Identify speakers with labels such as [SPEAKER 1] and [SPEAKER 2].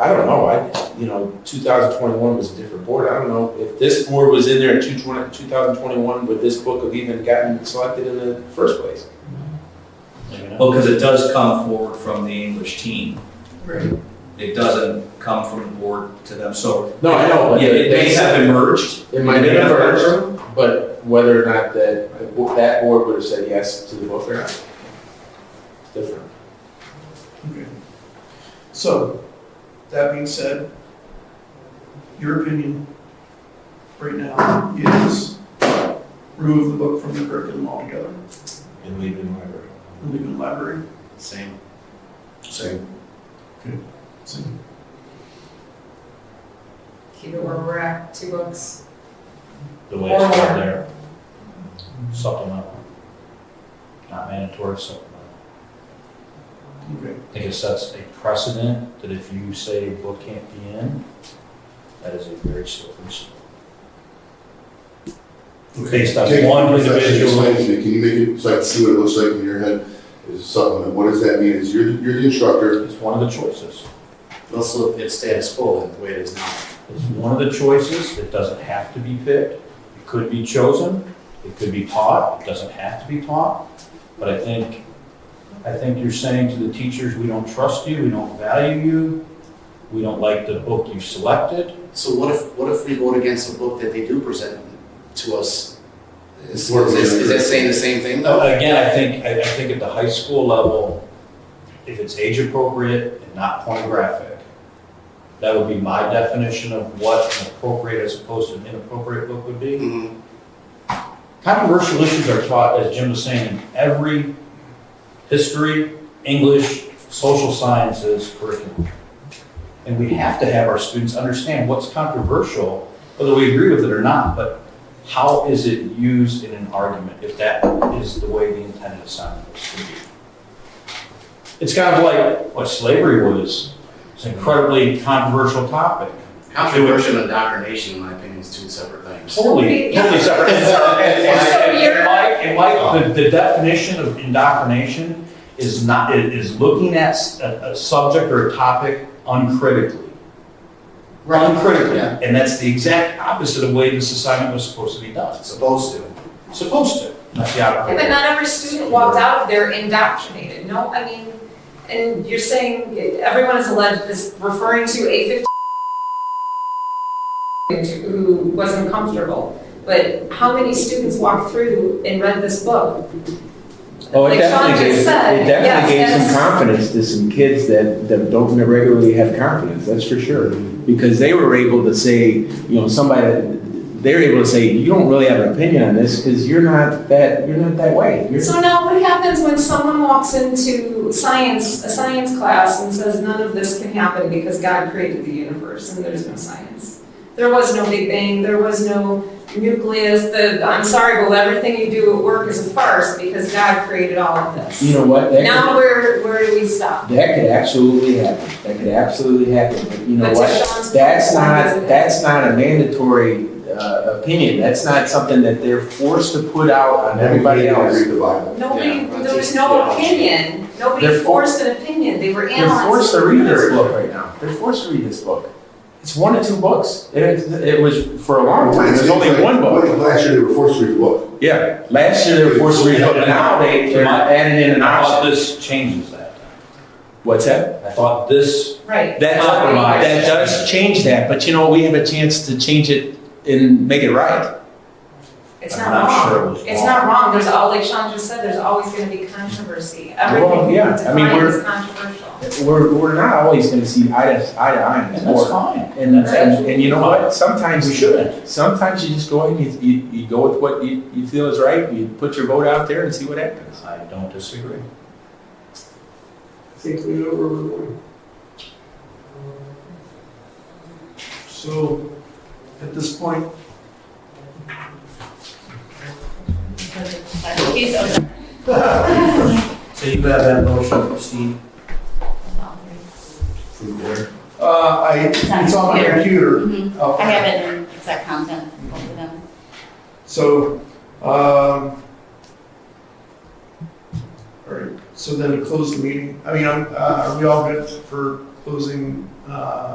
[SPEAKER 1] I don't know, I, you know, two thousand twenty-one was a different board, I don't know, if this board was in there in 2021, would this book have even gotten selected in the first place?
[SPEAKER 2] Well, because it does come forward from the English team.
[SPEAKER 3] Right.
[SPEAKER 2] It doesn't come from the board to them, so.
[SPEAKER 1] No, I know, but
[SPEAKER 2] Yeah, it may have emerged.
[SPEAKER 1] It might have diverged, but whether or not that, that board would have said yes to the book or not. it's Different.
[SPEAKER 3] So, that being said, your opinion right now is remove the book from the curriculum altogether
[SPEAKER 1] And leaving the library.
[SPEAKER 3] and leave it in library.
[SPEAKER 2] Same.
[SPEAKER 1] Same.
[SPEAKER 4] keep it where we're at, two books.
[SPEAKER 5] the way it's right there. Supplemental. Not mandatory supplemental.
[SPEAKER 3] Okay.
[SPEAKER 5] I think it sets a precedent that if you say a book can't be in, that is a very slippery slope. Based on
[SPEAKER 6] Take-
[SPEAKER 5] one
[SPEAKER 6] that's actually
[SPEAKER 5] individual-
[SPEAKER 6] explained to me. Can you make it, so I can see what it looks like in your head, is supplement, what does that mean, is you're, you're the instructor,
[SPEAKER 5] It's one of the choices.
[SPEAKER 7] Also, it status quo the way it is now.
[SPEAKER 5] It's one of the choices. It doesn't have to be picked. It could be chosen. It could be taught. It doesn't have to be taught. But I think, I think you're saying to the teachers, we don't trust you, we don't value you, we don't like the book you selected.
[SPEAKER 7] So what if, what if we vote against a book that they do present to us? Is,
[SPEAKER 6] What
[SPEAKER 7] is,
[SPEAKER 6] if we-
[SPEAKER 7] is that saying the same thing though?
[SPEAKER 5] Again, I think, I I think at the high school level, if it's age appropriate and not pornographic, that would be my definition of what an appropriate as opposed to an inappropriate book would be.
[SPEAKER 7] Mhm.
[SPEAKER 5] Controversial issues are taught, as Jim was saying, in every history, English, social sciences curriculum. And we have to have our students understand what's controversial, whether we agree with it or not, but how is it used in an argument if that is the way the intended assignment was to be? It's kind of like what slavery was. It's an incredibly controversial topic.
[SPEAKER 7] Controversial and indoctrination, in my opinion, is two separate things.
[SPEAKER 5] Totally, totally separate. And, and, and, and Mike, and Mike, the, the definition of indoctrination is not, is- is looking at s- a, a subject or a topic uncritically. Uncritically,
[SPEAKER 7] Yeah.
[SPEAKER 5] and that's the exact opposite of the way this assignment was supposed to be done. It's
[SPEAKER 7] Supposed to.
[SPEAKER 5] Supposed to, not the out
[SPEAKER 4] Yeah, but not every student walked out of there indoctrinated, no, I mean, and you're saying everyone is alleged, is referring to a fifteen who wasn't comfortable, but how many students walked through and read this book?
[SPEAKER 8] Oh, it
[SPEAKER 4] Like Sean
[SPEAKER 8] definitely gave,
[SPEAKER 4] just
[SPEAKER 8] it
[SPEAKER 4] said, yes,
[SPEAKER 8] definitely gave
[SPEAKER 4] that's-
[SPEAKER 8] some confidence to some kids that, that don't regularly have confidence, that's for sure. Because they were able to say, you know, somebody, they were able to say, you don't really have an opinion on this because you're not that, you're not that way. You're-
[SPEAKER 4] So now what happens when someone walks into science, a science class and says none of this can happen because God created the universe and there's no science? There was no Big Bang, there was no nucleus, the, I'm sorry, but everything you do at work is a farce because God created all of
[SPEAKER 8] You
[SPEAKER 4] this.
[SPEAKER 8] know what, that
[SPEAKER 4] Now
[SPEAKER 8] could,
[SPEAKER 4] where, where do we stop?
[SPEAKER 8] that could absolutely happen, that could absolutely happen, but you know
[SPEAKER 4] But to
[SPEAKER 8] what?
[SPEAKER 4] Sean's point,
[SPEAKER 8] That's
[SPEAKER 4] why doesn't
[SPEAKER 8] not,
[SPEAKER 4] it?
[SPEAKER 8] that's not a mandatory, uh, opinion, that's not something that they're forced to put out on everybody
[SPEAKER 6] Everybody
[SPEAKER 8] else.
[SPEAKER 6] read the Bible.
[SPEAKER 4] Nobody,
[SPEAKER 7] Yeah,
[SPEAKER 4] there was no
[SPEAKER 7] that's-
[SPEAKER 4] opinion, nobody
[SPEAKER 8] They're for-
[SPEAKER 4] forced an opinion, they were
[SPEAKER 8] They're forced
[SPEAKER 4] analyzed.
[SPEAKER 8] to read this book right now. They're forced to read this book. It's one or two books. It, it was for a long time. It was only one book.
[SPEAKER 6] When Last year they were forced to read the book.
[SPEAKER 8] Yeah. Last year they were forced to read it, but now they, they're not adding in an
[SPEAKER 5] And I thought
[SPEAKER 8] option.
[SPEAKER 5] this changes that.
[SPEAKER 8] What's that?
[SPEAKER 5] I thought this,
[SPEAKER 4] Right.
[SPEAKER 8] That,
[SPEAKER 5] Compromise.
[SPEAKER 8] that does change that, but you know, we have a chance to change it and make it right.
[SPEAKER 4] It's
[SPEAKER 5] I'm
[SPEAKER 4] not
[SPEAKER 5] not
[SPEAKER 4] wrong.
[SPEAKER 5] sure it was
[SPEAKER 4] It's not wrong, there's all, like Sean just said, there's always gonna be controversy. Everything
[SPEAKER 8] Well,
[SPEAKER 4] we
[SPEAKER 8] yeah, I mean,
[SPEAKER 4] define
[SPEAKER 8] we're-
[SPEAKER 4] is controversial.
[SPEAKER 8] We're, we're not always gonna see eye to, eye to eye.
[SPEAKER 5] and that's fine.
[SPEAKER 8] And, and, and you know what? Sometimes
[SPEAKER 5] We
[SPEAKER 8] you
[SPEAKER 5] shouldn't.
[SPEAKER 8] Sometimes you just go ahead and you, you, you go with what you, you feel is right. You put your vote out there and see what happens.
[SPEAKER 5] I don't disagree.
[SPEAKER 3] I think we know where we're going. So, at this point,
[SPEAKER 2] So you have that motion from Steve?
[SPEAKER 6] From there.
[SPEAKER 3] Uh, I, it's on my computer.
[SPEAKER 9] Mhm.
[SPEAKER 3] Oh.
[SPEAKER 9] I have it in exact content, both of them.
[SPEAKER 3] So, um, all right, so then to close the meeting, I mean, I'm, uh, are we all good for closing, uh,